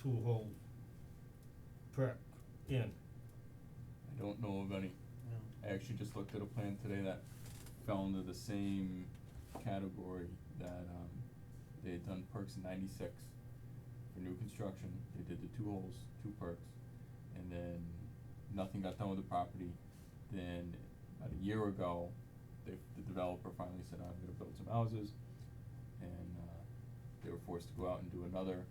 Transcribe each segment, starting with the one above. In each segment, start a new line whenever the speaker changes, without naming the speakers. two hole uh, prep in.
I don't know of any.
No.
I actually just looked at a plan today that fell into the same category that um they had done perks in ninety six for new construction. They did the two holes, two perks, and then nothing got done with the property. Then about a year ago, they the developer finally said, I'm gonna build some houses and uh they were forced to go out and do another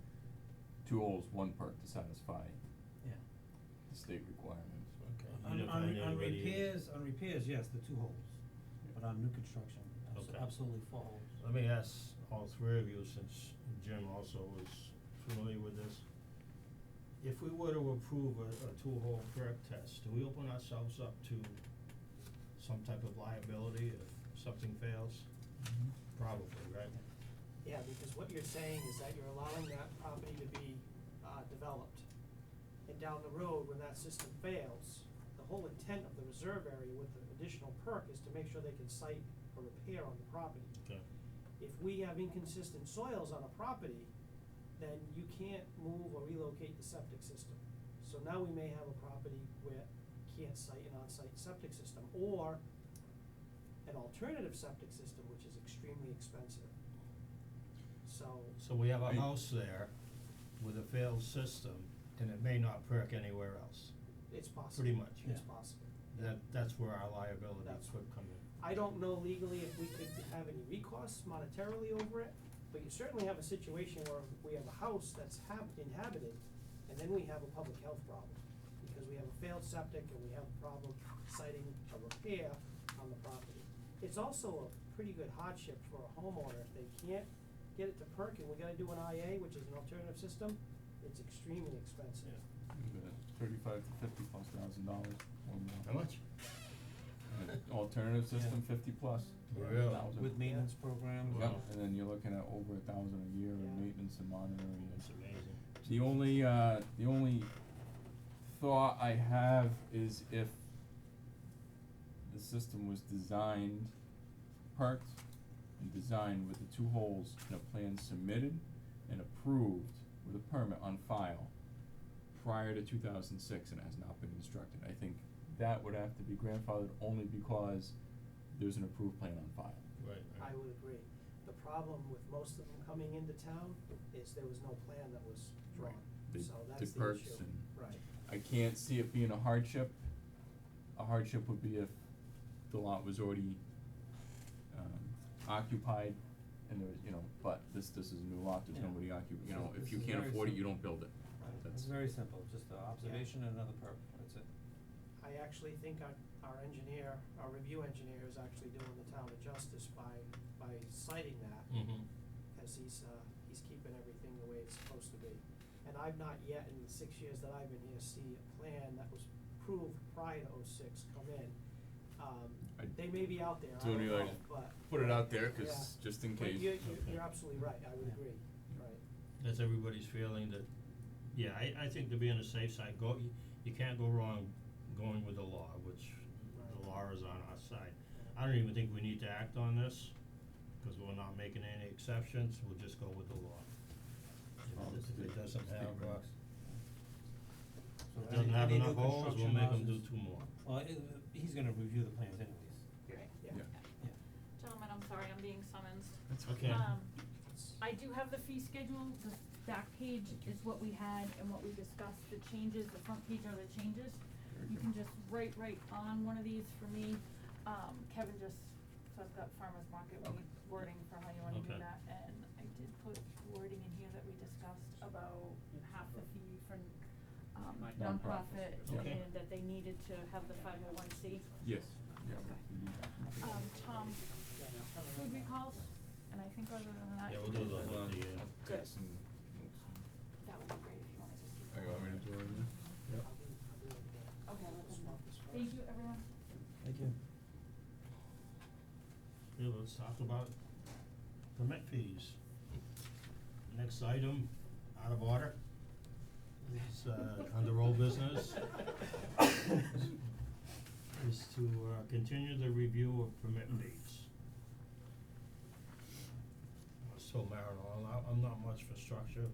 two holes, one perk to satisfy
Yeah.
the state requirements.
Okay.
You
On
didn't
on
find
re- on
anybody in-
repairs, on repairs, yes, the two holes,
But on new construction, abso-
Okay.
absolutely four holes.
Let me ask all three of you, since Jim also is familiar with this. If we were to approve a, a two-hole perk test, do we open ourselves up to some type of liability if something fails? Probably, right?
Yeah, because what you're saying is that you're allowing that property to be, uh, developed. And down the road, when that system fails, the whole intent of the reserve area with the additional perk is to make sure they can site a repair on the property.
Okay.
If we have inconsistent soils on a property, then you can't move or relocate the septic system. So now we may have a property where can't site an on-site septic system, or an alternative septic system, which is extremely expensive. So,
So we have a
Right.
house there with a failed system, and it may not perk anywhere else.
it's possible.
Pretty much.
It's
Yeah.
possible.
That, that's where our liability
That's-
could come in.
I don't know legally if we could have any recourse monetarily over it, but you certainly have a situation where we have a house that's hab- inhabited, and then we have a public health problem. Because we have a failed septic and we have a problem citing a repair on the property. It's also a pretty good hardship for a homeowner, if they can't get it to perk and we gotta do an IA, which is an alternative system, it's extremely expensive.
Thirty-five to fifty plus thousand dollars or more.
How much?
An Alternative system, fifty plus.
Really?
thousand.
With maintenance programs.
Yep,
Wow.
and then you're looking at over a thousand a year in
Yeah.
maintenance and monitoring.
That's amazing.
The only, uh, the only thought I have is if the system was designed, parked and designed with the two holes and a plan submitted and approved with a permit on file prior to two thousand six and has not been instructed, I think that would have to be grandfathered only because there's an approved plan on file.
Right,
I would agree. The problem with most of them coming into town is there was no plan that was drawn,
They-
so
they
that's the issue.
perks and-
Right,
I can't see it being a hardship. A hardship would be if the lot was already um occupied and there was, you know, but this this is a new lot, there's
Yeah.
nobody occupied, you
This
know,
is-
if
this
you
is
can't
very
afford it, you
simple.
don't build it.
Right.
It's
That's
very simple, just a observation and another perp, that's it.
I actually think our, our engineer, our review engineer is actually doing the town a justice by, by citing that,
Mm-hmm.
cause he's, uh, he's keeping everything the way it's supposed to be. And I've not yet, in the six years that I've been here, see a plan that was approved prior to oh six come in. Um,
I
they may be out there, I
don't
don't
really
know,
like-
but.
Put it out there, 'cause
Yeah.
just in
But
case.
you're,
Okay.
you're, you're absolutely right, I would
Yeah.
agree, right.
That's everybody's feeling that, yeah, I, I think to be on the safe side, go, you, you can't go wrong going with the law, which
Right.
the law is on our side. I don't even think we need to act on this, cause we're not making any exceptions, we'll just go with the law. If it- If it doesn't have, uh,
So
if it doesn't
any-
have
any new
enough holes, we'll
construction
make them do
houses-
two more.
Well, it- he's gonna review the plans anyways.
Right, yeah.
Yeah.
Yeah.
Gentlemen, I'm sorry, I'm being summoned.
That's
okay.
Um, I do have the fee schedule, the back page is what we had and what we discussed, the changes, the front page are the changes.
Very
You
good.
can just write right on one of these for me, um, Kevin just, so I've got farmer's market
Okay.
wording for how you wanna do
Okay.
that, and I did put wording in here that we discussed about half the fee for, um, nonprofit,
Nonprofits.
Okay.
and that they needed to have the five oh one C.
Yes, yeah.
Okay.
we can do that.
Um, Tom, food recalls, and I think other than that.
Yeah, we'll do the,
Hold on,
the, uh,
I've
Good.
got some notes.
That would be great if you wanna just keep.
Are you want me to do it right now?
I'll do, I'll do it again.
Okay, let them know.
Swap this
Thank
first.
you, everyone.
Thank you.
Yeah, let's talk about permit fees. Next item, out of order, is uh under old business. Is to uh continue the review of permit fees. I was told Marilyn, I'm not, I'm not much for structure,